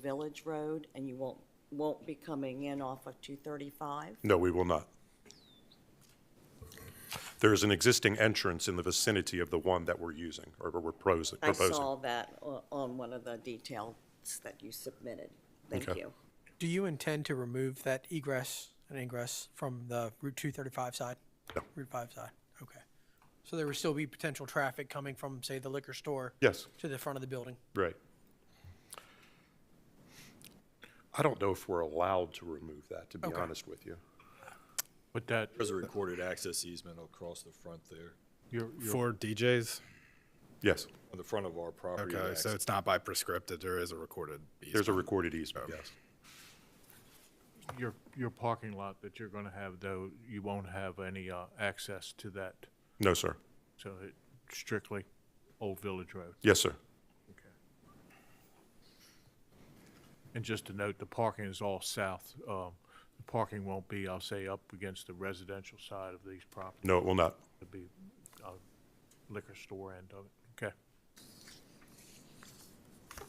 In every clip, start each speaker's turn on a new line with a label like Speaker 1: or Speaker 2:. Speaker 1: Village Road, and you won't, won't be coming in off of 235?
Speaker 2: No, we will not. There is an existing entrance in the vicinity of the one that we're using, or we're proposing.
Speaker 1: I
Speaker 2: proposing.
Speaker 1: saw that o- on one of the details that you submitted. Thank
Speaker 2: Okay.
Speaker 1: you.
Speaker 3: Do you intend to remove that egress and ingress from the Route 235 side?
Speaker 2: No.
Speaker 3: Route 5 side, okay. So there would still be potential traffic coming from, say, the liquor store?
Speaker 2: Yes.
Speaker 3: To the front of the building?
Speaker 2: Right. I don't know if we're allowed to remove that, to be
Speaker 3: Okay.
Speaker 2: honest with you.
Speaker 4: Would that,
Speaker 5: There's a recorded access easement across the front there,
Speaker 4: your, your,
Speaker 6: For DJs?
Speaker 2: Yes,
Speaker 5: on the front of our property.
Speaker 6: Okay, so it's not by prescriptive, there is a recorded
Speaker 2: there's a
Speaker 6: easement.
Speaker 2: recorded easement, yes.
Speaker 4: your, your parking lot that you're gonna have though, you won't have any, uh, access to that,
Speaker 2: No, sir.
Speaker 4: so it strictly Old Village Road.
Speaker 2: Yes, sir.
Speaker 4: And just to note, the parking is all south, um, the parking won't be, I'll say, up against the residential side of these properties.
Speaker 2: No, it will not.
Speaker 4: It'll be, uh, liquor store end of it, okay?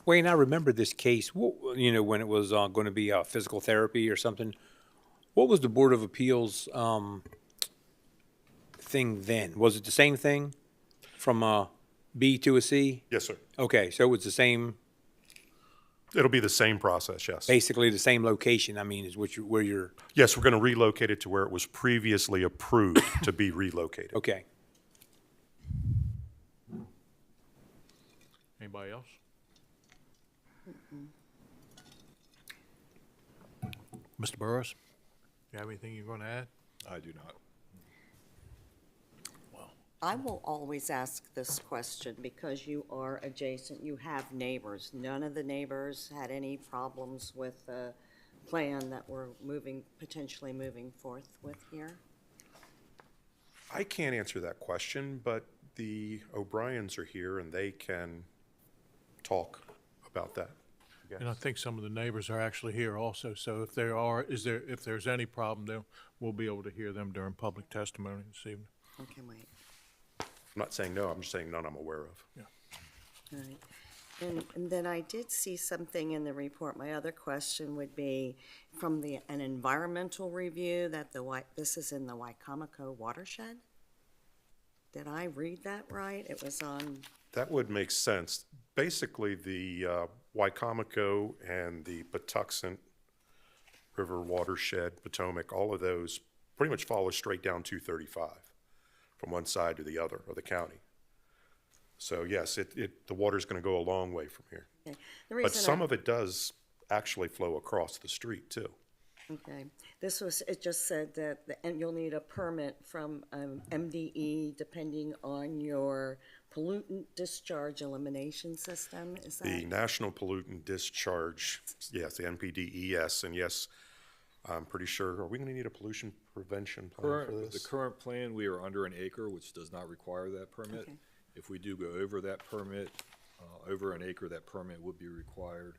Speaker 7: Wayne, I remember this case, wh- you know, when it was uh, going to be uh, physical therapy or something. What was the Board of Appeals um, thing then? Was it the same thing from a B to a C?
Speaker 2: Yes, sir.
Speaker 7: Okay, so it was the same,
Speaker 2: It'll be the same process, yes.
Speaker 7: basically the same location, I mean, is what you, where you're,
Speaker 2: Yes, we're going to relocate it to where it was previously approved to be relocated.
Speaker 7: okay.
Speaker 4: Anybody else? Mr. Burrows, you have anything you're gonna add?
Speaker 5: I do not.
Speaker 1: I will always ask this question because you are adjacent, you have neighbors. None of the neighbors had any problems with the plan that we're moving, potentially moving forth with here?
Speaker 2: I can't answer that question, but the O'Briens are here and they can talk about that.
Speaker 4: And I think some of the neighbors are actually here also, so if there are, is there, if there's any problem, then we'll be able to hear them during public testimony this evening.
Speaker 1: Okay, wait.
Speaker 2: I'm not saying no, I'm just saying none I'm aware of.
Speaker 1: All right. And, and then I did see something in the report. My other question would be from the, an environmental review that the, Wai- this is in the Wycomico watershed? Did I read that right? It was on,
Speaker 2: That would make sense. Basically, the uh, Wycomico and the Patuxent River watershed, Potomac, all of those pretty much follow straight down 235 from one side to the other of the county. So yes, it, it, the water's going to go a long way from here.
Speaker 1: okay. The
Speaker 2: But
Speaker 1: reason I-
Speaker 2: some of it does actually flow across the street too.
Speaker 1: Okay, this was, it just said that, the- and you'll need a permit from um, MDE depending on your pollutant discharge elimination system, is
Speaker 2: The
Speaker 1: that?
Speaker 2: National Pollutant Discharge, yes, the NPDES, E and yes, I'm pretty sure, are we going to need a pollution prevention plan for
Speaker 5: Current, the
Speaker 2: this?
Speaker 5: current plan, we are under an acre, which does not require that permit.
Speaker 1: Okay.
Speaker 5: If we do go over that permit, uh, over an acre, that permit would be required.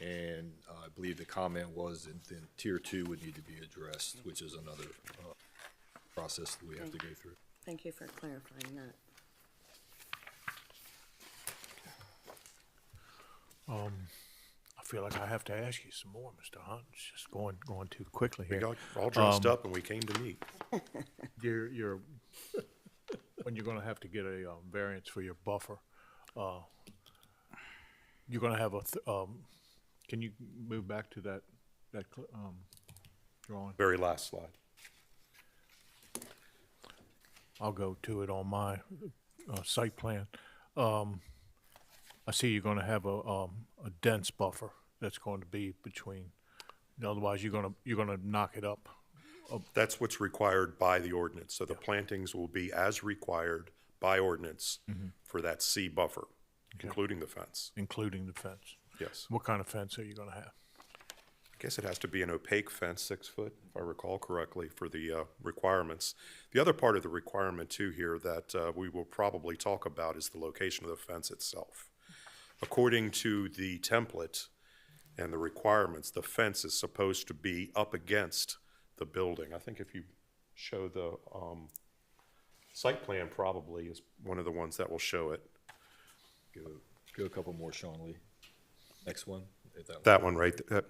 Speaker 5: And uh, I believe the comment was, and then tier two would need to be addressed, which is another, uh, process that we have to go through.
Speaker 1: Thank you for clarifying that.
Speaker 4: Um, I feel like I have to ask you some more, Mr. Hunt, it's just going, going too quickly
Speaker 2: We
Speaker 4: here.
Speaker 2: got all dressed up and we came to meet.
Speaker 4: You're, you're, when you're gonna have to get a, um, variance for your buffer, uh, you're gonna have a, th- um, can you move back to that, that, cl- um, drawing?
Speaker 2: Very last slide.
Speaker 4: I'll go to it on my uh, site plan. Um, I see you're going to have a, um, a dense buffer that's going to be between, otherwise you're going to, you're going to knock it up.
Speaker 2: That's what's required by the ordinance. So the plantings will be as required by ordinance for that C buffer, including the fence.
Speaker 4: Including the fence.
Speaker 2: Yes.
Speaker 4: What kind of fence are you going to have?
Speaker 2: I guess it has to be an opaque fence, six foot, if I recall correctly, for the uh, requirements. The other part of the requirement too here that uh, we will probably talk about is the location of the fence itself. According to the template and the requirements, the fence is supposed to be up against the building. I think if you show the um, site plan probably is one of the ones that will show it.
Speaker 5: Go, go a couple more, Sean Lee. Next one. if that
Speaker 2: That one right, th- that,